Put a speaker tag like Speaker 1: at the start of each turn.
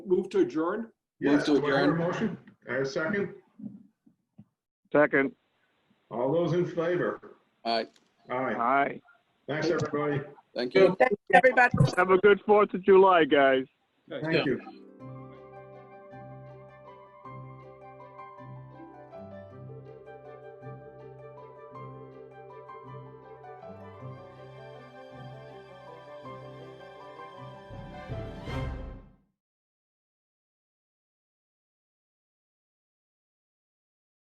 Speaker 1: to adjourn?
Speaker 2: Yes,
Speaker 1: Move
Speaker 2: do
Speaker 1: to
Speaker 2: I hear a
Speaker 1: adjourn.
Speaker 2: motion? I have a second.
Speaker 3: Second,
Speaker 2: All those in favor?
Speaker 1: All right,
Speaker 2: Aye.
Speaker 3: aye.
Speaker 2: Thanks, everybody.
Speaker 1: thank you.
Speaker 4: Thanks, everybody.
Speaker 3: Have a good Fourth of July, guys.
Speaker 2: Thank you.